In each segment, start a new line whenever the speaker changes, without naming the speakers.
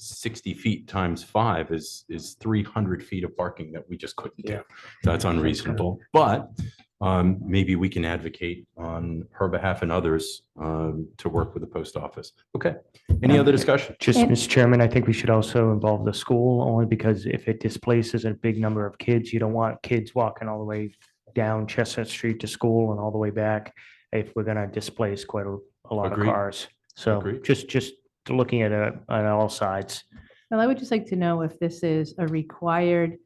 sixty feet times five is, is three hundred feet of parking that we just couldn't do.
Yeah.
That's unreasonable, but um, maybe we can advocate on her behalf and others um, to work with the post office. Okay, any other discussion?
Just,
And-
Mr. Chairman, I think we should also involve the school only because if it displaces a big number of kids, you don't want kids walking all the way down Chestnut Street to school and all the way back if we're going to displace quite a, a lot of
Agreed.
cars. So
Agreed.
just, just looking at it on all sides.
Well, I would just like to know if this is a required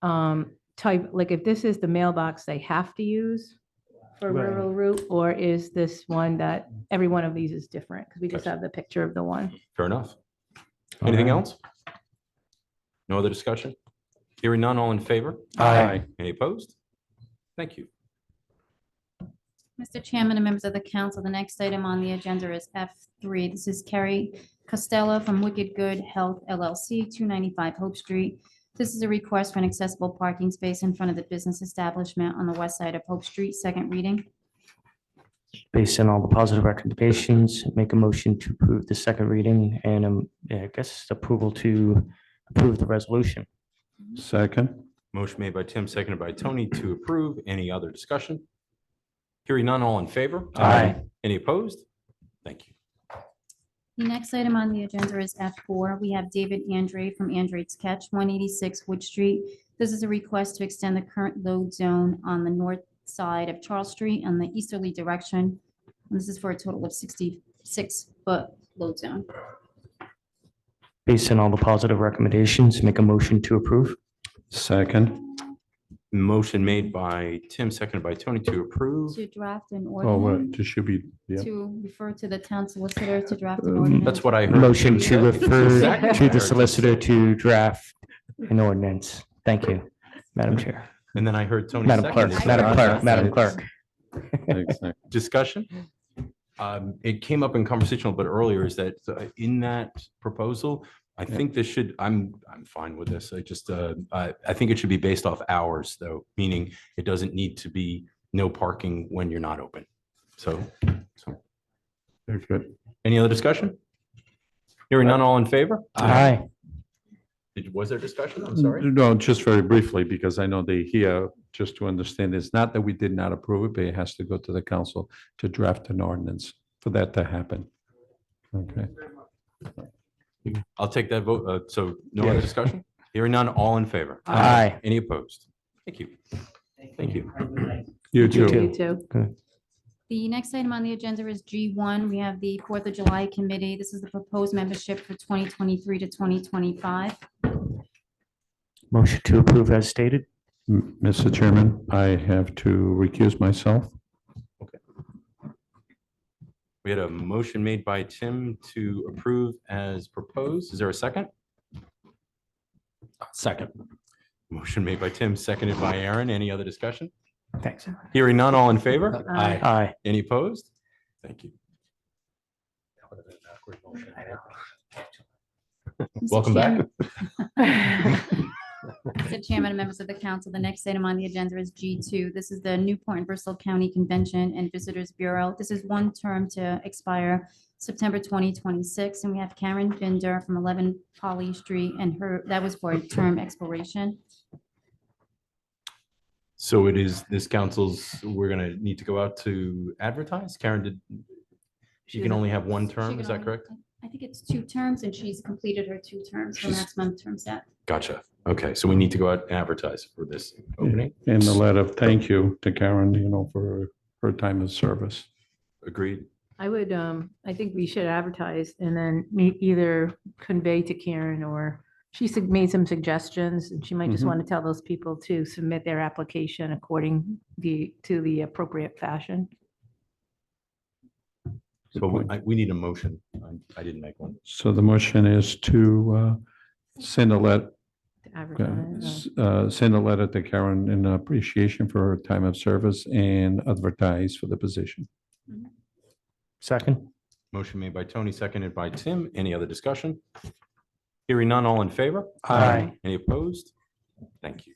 um, type, like if this is the mailbox they have to use for
Right.
rural route, or is this one that every one of these is different? Because we just
Gotcha.
have the picture of the one.
Fair enough. Anything
Alright.
else? No other discussion? Hearing none, all in favor?
Aye.
Any opposed? Thank you.
Mr. Chairman and members of the council, the next item on the agenda is F3. This is Carrie Costello from Wicked Good Health LLC, 295 Hope Street. This is a request for an accessible parking space in front of the business establishment on the west side of Hope Street, second reading.
Based on all the positive recommendations, make a motion to approve the second reading and um, I guess approval to approve the resolution.
Second,
Motion made by Tim, seconded by Tony to approve. Any other discussion? Hearing none, all in favor?
Aye.
Any opposed? Thank you.
The next item on the agenda is F4. We have David Andre from Andre's Catch, 186 Wood Street. This is a request to extend the current load zone on the north side of Charles Street in the easterly direction. And This is for a total of 66-foot load zone.
Based on all the positive recommendations, make a motion to approve.
second.
Motion made by Tim, seconded by Tony to approve.
To draft an
Oh, what,
ordinance,
this should be, yeah.
to refer to the town solicitor to draft an
Um,
ordinance.
That's what I heard.
Motion to refer
Second.
to the solicitor to draft an ordinance. Thank you, Madam Chair,
And then I heard Tony.
Madam Clerk,
seconded.
Madam Clerk, Madam
Seconded.
Clerk.
Exactly.
discussion. Um, It came up in conversation a little bit earlier, is that uh, in that proposal, I think this should, I'm, I'm fine with this. I just, uh, I, I think it should be based off hours though, meaning it doesn't need to be no parking when you're not open. So, so
Very good.
any other discussion? Hearing none, all in favor? Uh,
Aye.
Did- Was there discussion? I'm sorry.
No, just very briefly, because I know they hear, just to understand, it's not that we did not approve it, but it has to go to the council to draft an ordinance for that to happen. Okay,
I'll take that vote. uh, So no other
Yes.
discussion? Hearing none, all in favor?
Aye.
Any opposed? Thank you. Thank you.
you
You
too.
too.
You too.
The next item on the agenda is G1. We have the Fourth of July Committee. This is the proposed membership for 2023 to 2025.
Motion to approve as stated.
M- Mr. Chairman, I have to recuse myself.
We had a motion made by Tim to approve as proposed. Is there a second? Second. Motion made by Tim, seconded by Aaron. Any other discussion?
Thanks.
Hearing none, all in favor?
Aye.
Aye.
Any opposed? Thank you.
Mr.
Welcome back.
Chairman- Mr. Chairman and members of the council, the next item on the agenda is G2. This is the Newport and Bristol County Convention and Visitors Bureau. This is one term to expire September 2026, and we have Karen Binder from 11 Polly Street, and her, that was for a term expiration.
So it is this council's, we're going to need to go out to advertise. Karen did, she can
was-
only have one
she
term,
can
is that
only-
correct?
I think it's two terms, and she's completed her two terms, her
She's-
maximum term set.
Gotcha. Okay, so we need to go out and advertise for this opening.
In the letter of thank you to Karen, you know, for her time of service.
Agreed.
I would, um, I think we should advertise and then me- either convey to Karen or she sug- made some suggestions and she might just
Mhm.
want to tell those people to submit their application according the, to the appropriate fashion.
So we- I- we need a motion. I- I didn't make one.
So the motion is to uh, send a let,
to
Okay.
advertise,
S- uh, Send a letter to Karen in appreciation for her time of service and advertise for the position.
Second.
Motion made by Tony, seconded by Tim. Any other discussion? Hearing none, all in favor?
Aye.
Any opposed? Thank you.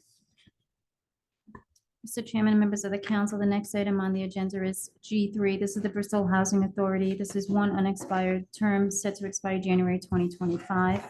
Mr. Chairman and members of the council, the next item on the agenda is G3. This is the Bristol Housing Authority. This is one unexpired term set to expire January 2025.